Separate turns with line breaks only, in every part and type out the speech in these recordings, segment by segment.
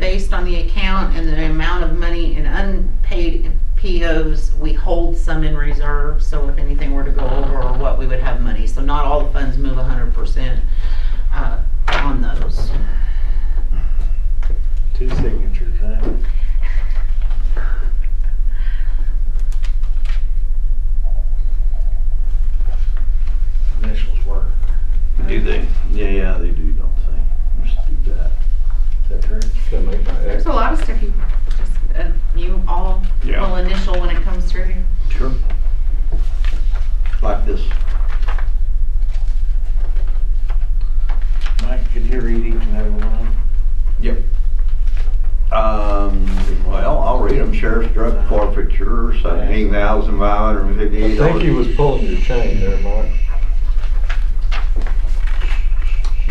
based on the account and the amount of money in unpaid POs, we hold some in reserve, so if anything were to go over or what, we would have money. So not all the funds move hundred percent, uh, on those.
Two signatures, huh? Initials work.
Do they? Yeah, yeah, they do, don't they? Just do that.
Is that true?
That make my
There's
ex.
a lot of stuff you just, uh, you all
Yeah.
will initial when it comes through.
Sure. Like this.
Mike, could you read each and every one?
Yep. Um, well, I'll read them. Sheriff's drug forfeiture, seventeen thousand five hundred and
I
fifty-eight dollars.
think he was pulling your chain there, Mike.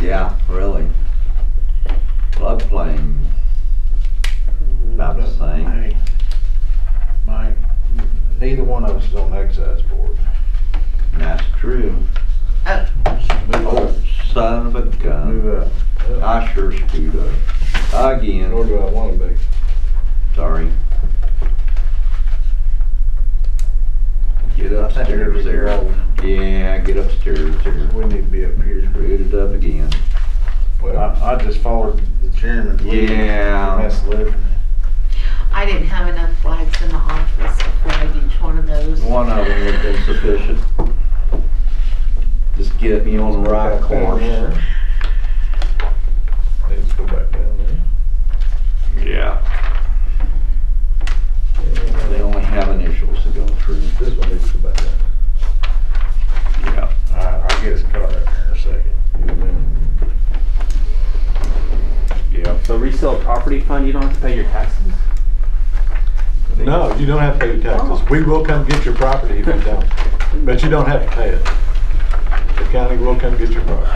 Yeah, really. Flood plain. About the same.
Hey, Mike, neither one of us is on the excise board.
That's true.
Uh,
Move
Oh,
up.
son of a gun.
Move up.
I sure screwed up.
Nor
Again,
do I want to be.
sorry. Get upstairs there. Yeah, get upstairs there.
We need to be up here.
Screwed it up again.
Well,
I, I just followed the chairman.
Yeah.
That's living.
I didn't have enough flags in the office to flag each one of those.
One of them would have been sufficient. Just get me on the right course.
Needs to go back down there.
Yeah. They only have initials to go through.
This one needs to go back down.
Yeah.
All right, I'll get his card up here in a second.
Yeah.
So resale property fund, you don't have to pay your taxes?
No, you don't have to pay your taxes. We will come get your property if you don't, but you don't have to pay it. The county will come get your property.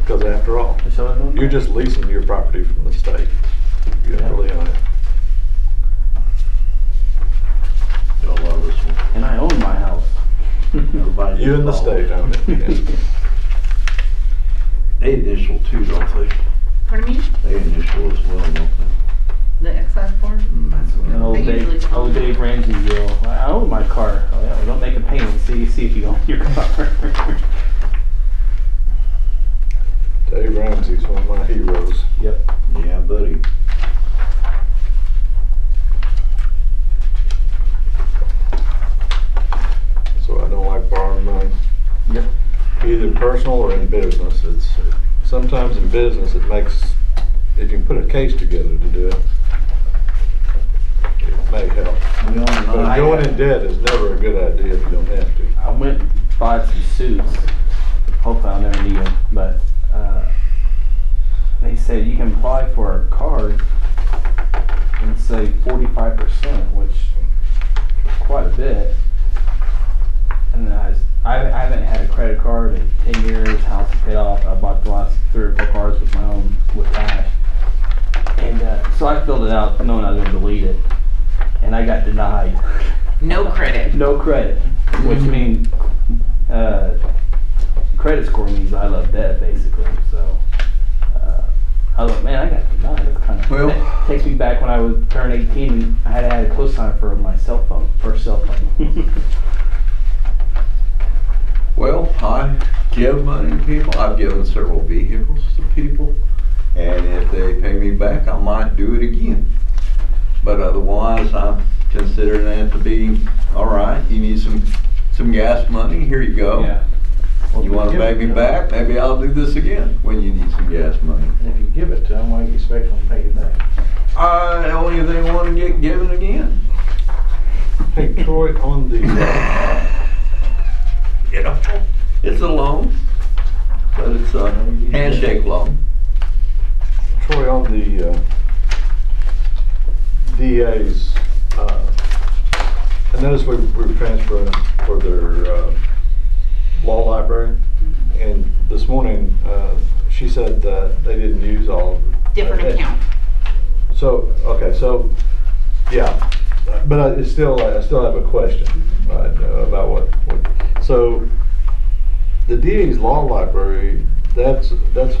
Because after all, you're just leasing your property from the state. You have to live on it.
Y'all love this one.
And I own my house.
Everybody
You and the
involved.
state own it.
They initial too, don't
Pardon me?
they? They initial as well, don't they?
The excise board?
And
Mm.
old
They usually
Dave,
tell
old
me.
Dave Ramsey will, I I own my car. Oh, yeah, well, Don't make a payment, see, see if you own your car.
Dave Ramsey's one of my heroes.
Yep.
Yeah, buddy.
So I don't like borrowing money.
Yep.
Either personal or in business. It's, sometimes in business, it makes, if you can put a case together to do it, it may help.
We own
But
uh,
going in debt is never a good idea if you don't have to.
I went and bought some suits. Hopefully I'll never need them, but, uh, they said you can apply for a card and say forty-five percent, which is quite a bit. And then I, s- I haven't- I haven't had a credit card in ten years, house is paid off, I bought the last three or four cards with my own, with cash. And, uh, so I filled it out, knowing I was gonna delete it, and I got denied.
No credit.
No credit, which means uh, credit score means I love debt basically. So uh, I was like, man, I got denied. That's kind of
Well-
that takes me back when I was turned 18 and I had had a cosign for my cell phone, first cell phone.
Well, I give money to people. I've given several vehicles to people. And if they pay me back, I might do it again. But otherwise, I'm considering that to be, all right, you need some, some gas money, here you go.
yeah.
You wanna pay me back, maybe I'll do this again when you need some gas money.
And if you give it to them, why do you expect them to pay you back?
Uh, only if they wanna get given again.
Hey Troy, on the, uh,
You know, it's a loan, but it's a handshake loan.
Troy, on the uh, DA's, uh, I noticed we were transferring for their uh, law library, and this morning, uh, she said that they didn't use all of it.
Different
Okay.
account.
So, okay, so, yeah, but I it's still, I still have a question
Mm-hmm.
right, uh, about what, what- so, the DA's law library, that's, that's